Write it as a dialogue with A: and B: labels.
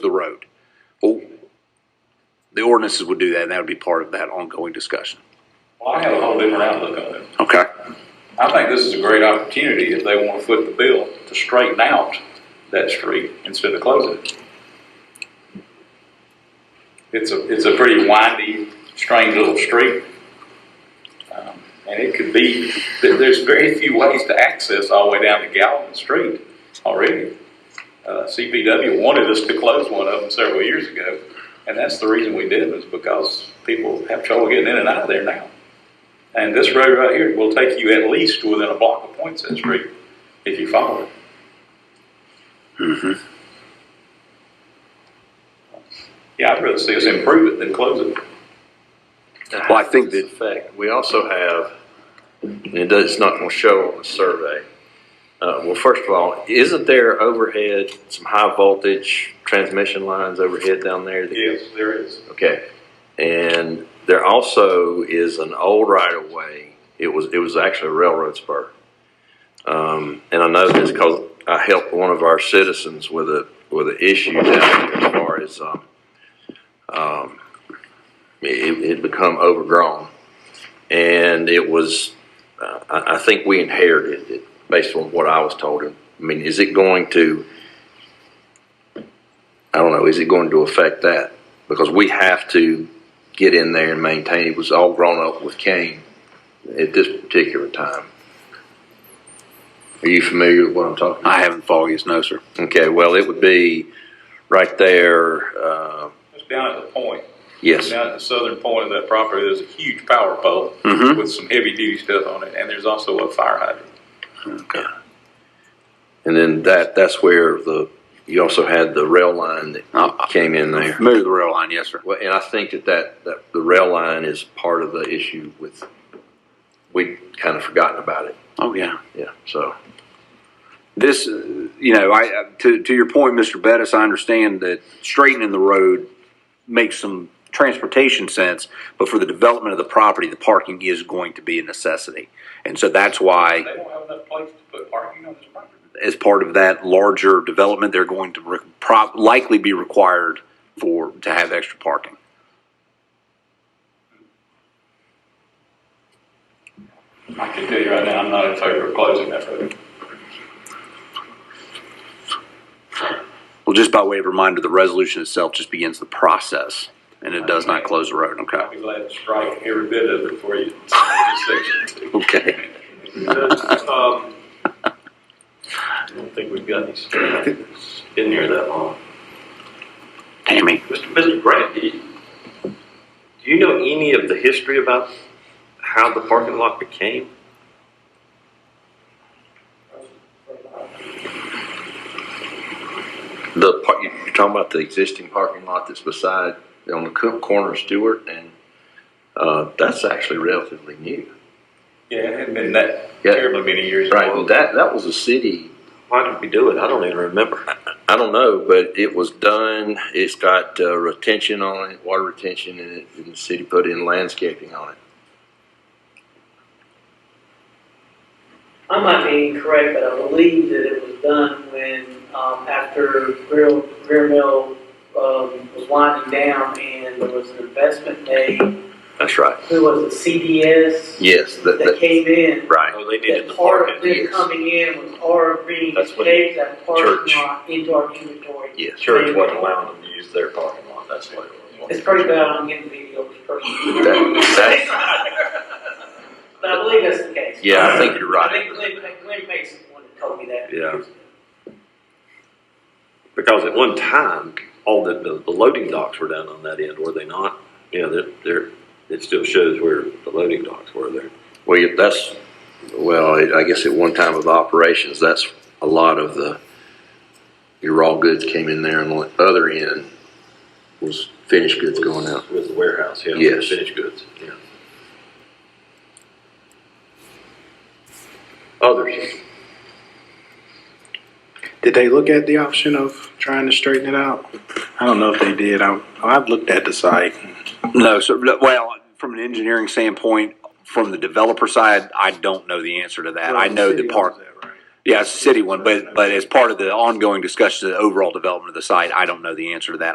A: the road. Well, the ordinances would do that, and that would be part of that ongoing discussion.
B: Well, I have a whole different outlook on it.
A: Okay.
B: I think this is a great opportunity if they want to foot the bill to straighten out that street instead of closing it. It's a, it's a pretty windy, strange little street. Um, And it could be, there- there's very few ways to access all the way down to Galvin Street already. Uh, CPW wanted us to close one of them several years ago, and that's the reason we did, was because people have trouble getting in and out of there now. And this road right here will take you at least within a block of Points Street if you follow it.
A: Mm-hmm.
B: Yeah, I'd rather see us improve it than close it.
A: Well, I think that-
C: fact, we also have, and it does, it's not gonna show on the survey. Uh, well, first of all, isn't there overhead, some high voltage transmission lines overhead down there? that-
B: Yes, there is.
C: Okay, and there also is an old right of way, it was, it was actually a railroad spur. Um, and I know this because I helped one of our citizens with a, with an issue down here as far as, um, um, it, it become overgrown. And it was, uh, I, I think we inherited it based on what I was told. I mean, is it going to, I don't know, is it going to affect that? Because we have to get in there and maintain, it was all grown up with cane at this particular time. Are you familiar with what I'm talking about?
A: I haven't followed you, no, sir.
C: Okay, well, it would be right there, uh,
B: It's down at the point,
C: yes.
B: down at the southern point of that property, there's a huge power pole
A: Mhm.
B: with some heavy duty stuff on it, and there's also a fire hydrant.
C: And then that, that's where the, you also had the rail line that
A: I'm
C: came in there.
A: familiar with the rail line, yes, sir.
C: Well, and I think that that, that the rail line is part of the issue with, we'd kind of forgotten about it,
A: Oh, yeah.
C: yeah, so.
A: This, uh, you know, I, I- to, to your point, Mr. Bettis, I understand that straightening the road makes some transportation sense, but for the development of the property, the parking is going to be a necessity. And so that's why.
B: They don't have enough place to put parking on this property.
A: as part of that larger development, they're going to re- prob- likely be required for, to have extra parking.
B: I can tell you right now, I'm not in favor of closing that road.
A: Well, just by way of reminder, the resolution itself just begins the process and it does not close the road,
B: I'll
A: okay?
B: be glad to strike every bit of it for you. This section.
A: Okay.
D: Um, I don't think we've got any staff in here that long.
A: Tammy?
D: Mr. Mr. Grant, do you- do you know any of the history about how the parking lot became?
C: The, par- you- you're talking about the existing parking lot that's beside, on the co- corner of Stewart, and, uh, that's actually relatively new.
B: Yeah, it hadn't been that
C: Yeah.
B: terribly many years.
C: Right, and that, that was a city
D: Why did we do it? I don't even remember.
C: I don't know, but it was done. It's got uh, retention on it, water retention, and, it, and the city put in landscaping on it.
E: I might be incorrect, but I believe that it was done when, um, after Greer, Greer Mill, um, was winding down and there was an investment made,
C: That's right.
E: who was it, CDS?
C: Yes, that,
E: That
C: that,
E: came in.
C: right.
D: Oh, they needed the
E: That part of
D: parking.
E: them
C: yes.
E: coming in was our agreeing
D: That's
E: to
D: when
E: take that
D: church-
E: parking lot into our inventory.
C: Yes.
D: Church wasn't allowing them to use their parking lot, that's why. it was.
E: It's pretty bad on individual
C: That,
E: person,
C: that,
E: but I believe that's the case.
C: yeah, I think you're
E: I
C: right.
E: think Glenn, Glenn Mason wanted to tell me that.
C: Yeah.
D: Because at one time, all the, the, the loading docks were down on that end, were they not? You know, they're, they're, it still shows where the loading docks were there.
C: Well, you- that's well. It, I guess at one time of operations, that's a lot of the your raw goods came in there, and the other end was finished goods going out.
D: Was the warehouse, yeah.
C: Yes.
D: Finished goods, yeah. Others,
F: Did they look at the option of trying to straighten it out? I don't know if they did. I, I've looked at the site.
A: No, so, well, from an engineering standpoint, from the developer side, I don't know the answer to that. I know the
F: City
A: park,
F: owns that, right?
A: Yeah, it's a city one, but, but as part of the ongoing discussion of the overall development of the site, I don't know the answer to that.